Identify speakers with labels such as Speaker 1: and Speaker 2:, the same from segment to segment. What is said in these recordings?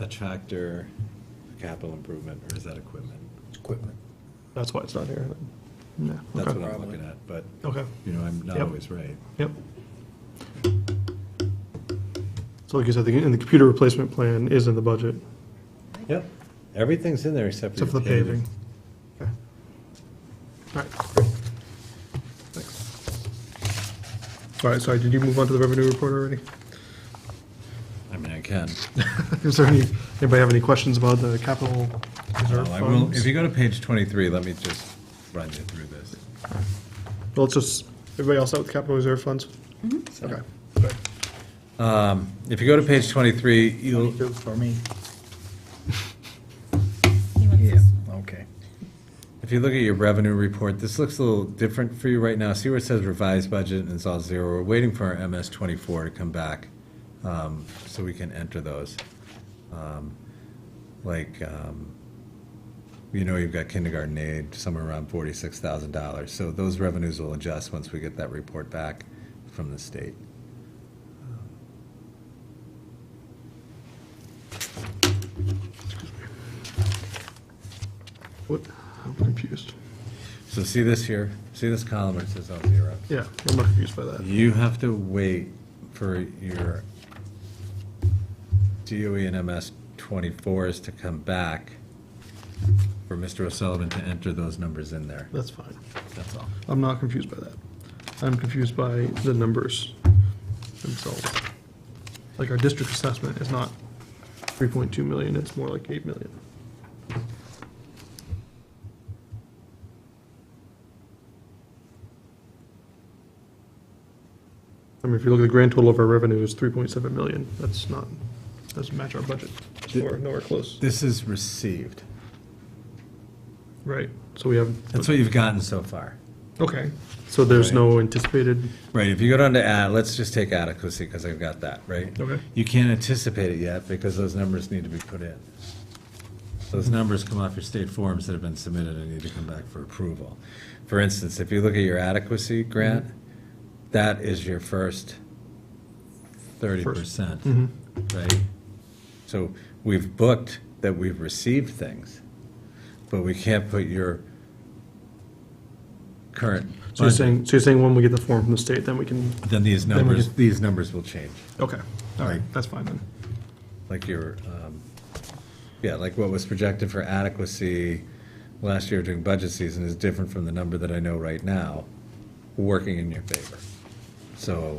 Speaker 1: a tractor, capital improvement, or is that equipment?
Speaker 2: Equipment.
Speaker 3: That's why it's not here. No,
Speaker 1: That's
Speaker 3: okay.
Speaker 1: what I'm looking at, but,
Speaker 3: Okay,
Speaker 1: you know, I'm not
Speaker 3: Yep.
Speaker 1: always right.
Speaker 3: yep. So like you said, the, and the computer replacement plan is in the budget,
Speaker 1: Yep, everything's in there except for
Speaker 3: except for
Speaker 1: the
Speaker 3: the
Speaker 1: paving.
Speaker 3: paving. Okay. All right. Thanks. All right, sorry, did you move on to the revenue report already?
Speaker 1: I mean, I can.
Speaker 3: Is there any, anybody have any questions about the capital reserve
Speaker 1: Well, I will,
Speaker 3: funds?
Speaker 1: if you go to page 23, let me just run you through this.
Speaker 3: Well, it's just, everybody else out with capital reserve funds?
Speaker 1: Mm-hmm.
Speaker 3: Okay, great.
Speaker 1: If you go to page 23, you'll,
Speaker 2: Twenty-two for me.
Speaker 4: Yeah. Uh,
Speaker 2: Okay.
Speaker 1: If you look at your revenue report, this looks a little different for you right now. See where it says revised budget and it's all zero. We're waiting for our MS twenty-four to come back, um, so we can enter those. Um, Like, um, you know, you've got kindergarten aid somewhere around forty-six thousand dollars. So those revenues will adjust once we get that report back from the state.
Speaker 3: What, I'm confused.
Speaker 1: So see this here, see this column where it says all zero?
Speaker 3: Yeah, I'm not confused by that.
Speaker 1: You have to wait for your DOE and MS 24s to come back for Mr. O'Sullivan to enter those numbers in there.
Speaker 3: That's fine.
Speaker 1: That's all.
Speaker 3: I'm not confused by that. I'm confused by the numbers themselves. Like our district assessment is not 3.2 million, it's more like 8 million. I mean, if you look at the grand total of our revenue is 3.7 million, that's not, doesn't match our budget. It's
Speaker 1: Did-
Speaker 3: nowhere, nowhere close,
Speaker 1: This is received.
Speaker 3: right? So we have,
Speaker 1: That's what you've gotten so far.
Speaker 3: okay, so there's no anticipated,
Speaker 1: Right, if you go down to ad, let's just take adequacy, because I've got that, right?
Speaker 3: Okay.
Speaker 1: You can't anticipate it yet, because those numbers need to be put in. Those numbers come off your state forms that have been submitted and need to come back for approval. For instance, if you look at your adequacy grant,
Speaker 3: Mm-hmm.
Speaker 1: that is your first thirty percent,
Speaker 3: Mm-hmm.
Speaker 1: right? So we've booked that we've received things, but we can't put your current
Speaker 3: so you're
Speaker 1: budget
Speaker 3: saying, so you're saying when we get the form from the state, then we can
Speaker 1: then these
Speaker 3: we
Speaker 1: numbers,
Speaker 3: just-
Speaker 1: these numbers will change,
Speaker 3: Okay, all right,
Speaker 1: Right.
Speaker 3: that's fine then.
Speaker 1: like your, um, yeah, like what was projected for adequacy last year during budget season is different from the number that I know right now, working in your favor. So,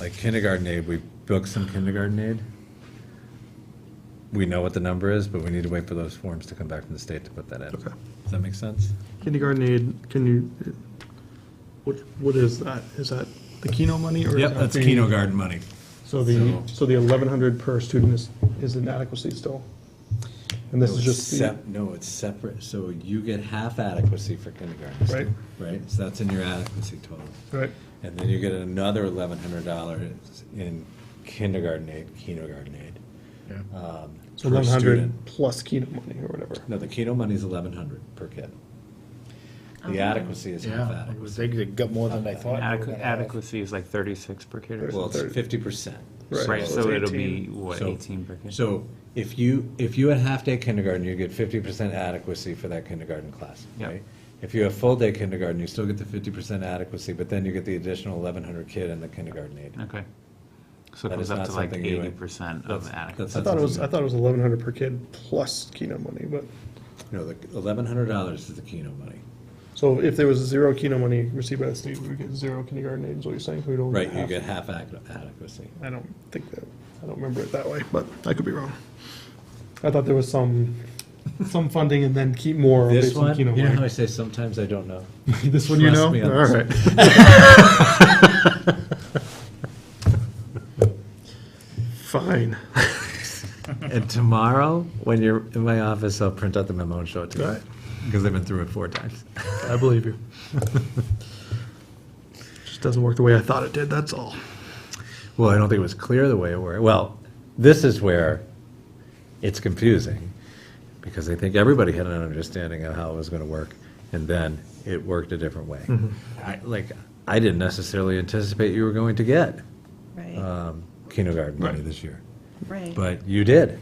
Speaker 1: like kindergarten aid, we booked some kindergarten aid. We know what the number is, but we need to wait for those forms to come back from the state to put that in.
Speaker 3: Okay.
Speaker 1: Does that make sense?
Speaker 3: Kindergarten aid, can you, what, what is that? Is that the Keno money or? is that the-
Speaker 1: kindergarten money.
Speaker 3: So the, so the eleven hundred per student is, is inadequacy still? And this is just, the-
Speaker 1: Sep- No, it's separate, so you get half adequacy for kindergarten.
Speaker 3: Right.
Speaker 1: Right, so that's in your adequacy total.
Speaker 3: right,
Speaker 1: And then you get another eleven hundred dollars in kindergarten aid, kindergarten aid.
Speaker 2: Yeah.
Speaker 1: um,
Speaker 3: so
Speaker 1: per
Speaker 3: eleven hundred
Speaker 1: student.
Speaker 3: plus Keno money or whatever.
Speaker 1: No, the Keno money's eleven hundred per kid. The adequacy is half
Speaker 2: Yeah, it
Speaker 1: adequacy.
Speaker 2: was, they got more than I thought. they were
Speaker 4: Adequ-
Speaker 2: gonna have.
Speaker 4: Adequacy is like thirty-six per kid or
Speaker 1: Well,
Speaker 4: something.
Speaker 1: it's fifty percent.
Speaker 3: Right.
Speaker 4: Right,
Speaker 3: so
Speaker 4: so
Speaker 3: it's
Speaker 4: it'll be,
Speaker 3: 18.
Speaker 4: what,
Speaker 1: So-
Speaker 4: eighteen per kid?
Speaker 1: So if you, if you had half-day kindergarten, you get fifty percent adequacy for that kindergarten class,
Speaker 4: Yep.
Speaker 1: right? If you have full-day kindergarten, you still get the fifty percent adequacy, but then you get the additional eleven hundred kid and the kindergarten aid.
Speaker 4: Okay. So it
Speaker 1: That is
Speaker 4: comes up
Speaker 1: not
Speaker 4: to like
Speaker 1: something you would-
Speaker 4: eighty percent
Speaker 1: That's-
Speaker 4: of
Speaker 1: that's
Speaker 3: I
Speaker 1: not
Speaker 4: adequacy.
Speaker 3: thought it was, I
Speaker 1: something-
Speaker 3: thought it was eleven hundred per kid plus Keno money, but,
Speaker 1: No, the eleven hundred dollars is the Keno money.
Speaker 3: so if there was zero Keno money received by the state, we would get zero kindergarten aid, is what you're saying? We don't.
Speaker 1: Right, you
Speaker 3: have-
Speaker 1: get half ad- adequacy.
Speaker 3: I don't think that, I don't remember it that way, but I could be wrong. I thought there was some, some funding and then keep more
Speaker 1: This
Speaker 3: based on
Speaker 1: one, you
Speaker 3: Keno
Speaker 1: know how I
Speaker 3: money.
Speaker 1: say sometimes I don't know?
Speaker 3: This one you know?
Speaker 1: Trust me on
Speaker 3: All right.
Speaker 1: this.
Speaker 3: Fine.
Speaker 1: And tomorrow, when you're in my office, I'll print out the memo and show it to you.
Speaker 3: Right.
Speaker 1: Because I've been through it four times.
Speaker 3: I believe you. Just doesn't work the way I thought it did, that's all.
Speaker 1: Well, I don't think it was clear the way it were. Well, this is where it's confusing, because I think everybody had an understanding of how it was gonna work, and then it worked a different way. I, like, I didn't necessarily anticipate you were going to get
Speaker 5: Right,
Speaker 1: um, kindergarten money this year,
Speaker 5: right.
Speaker 1: but you did.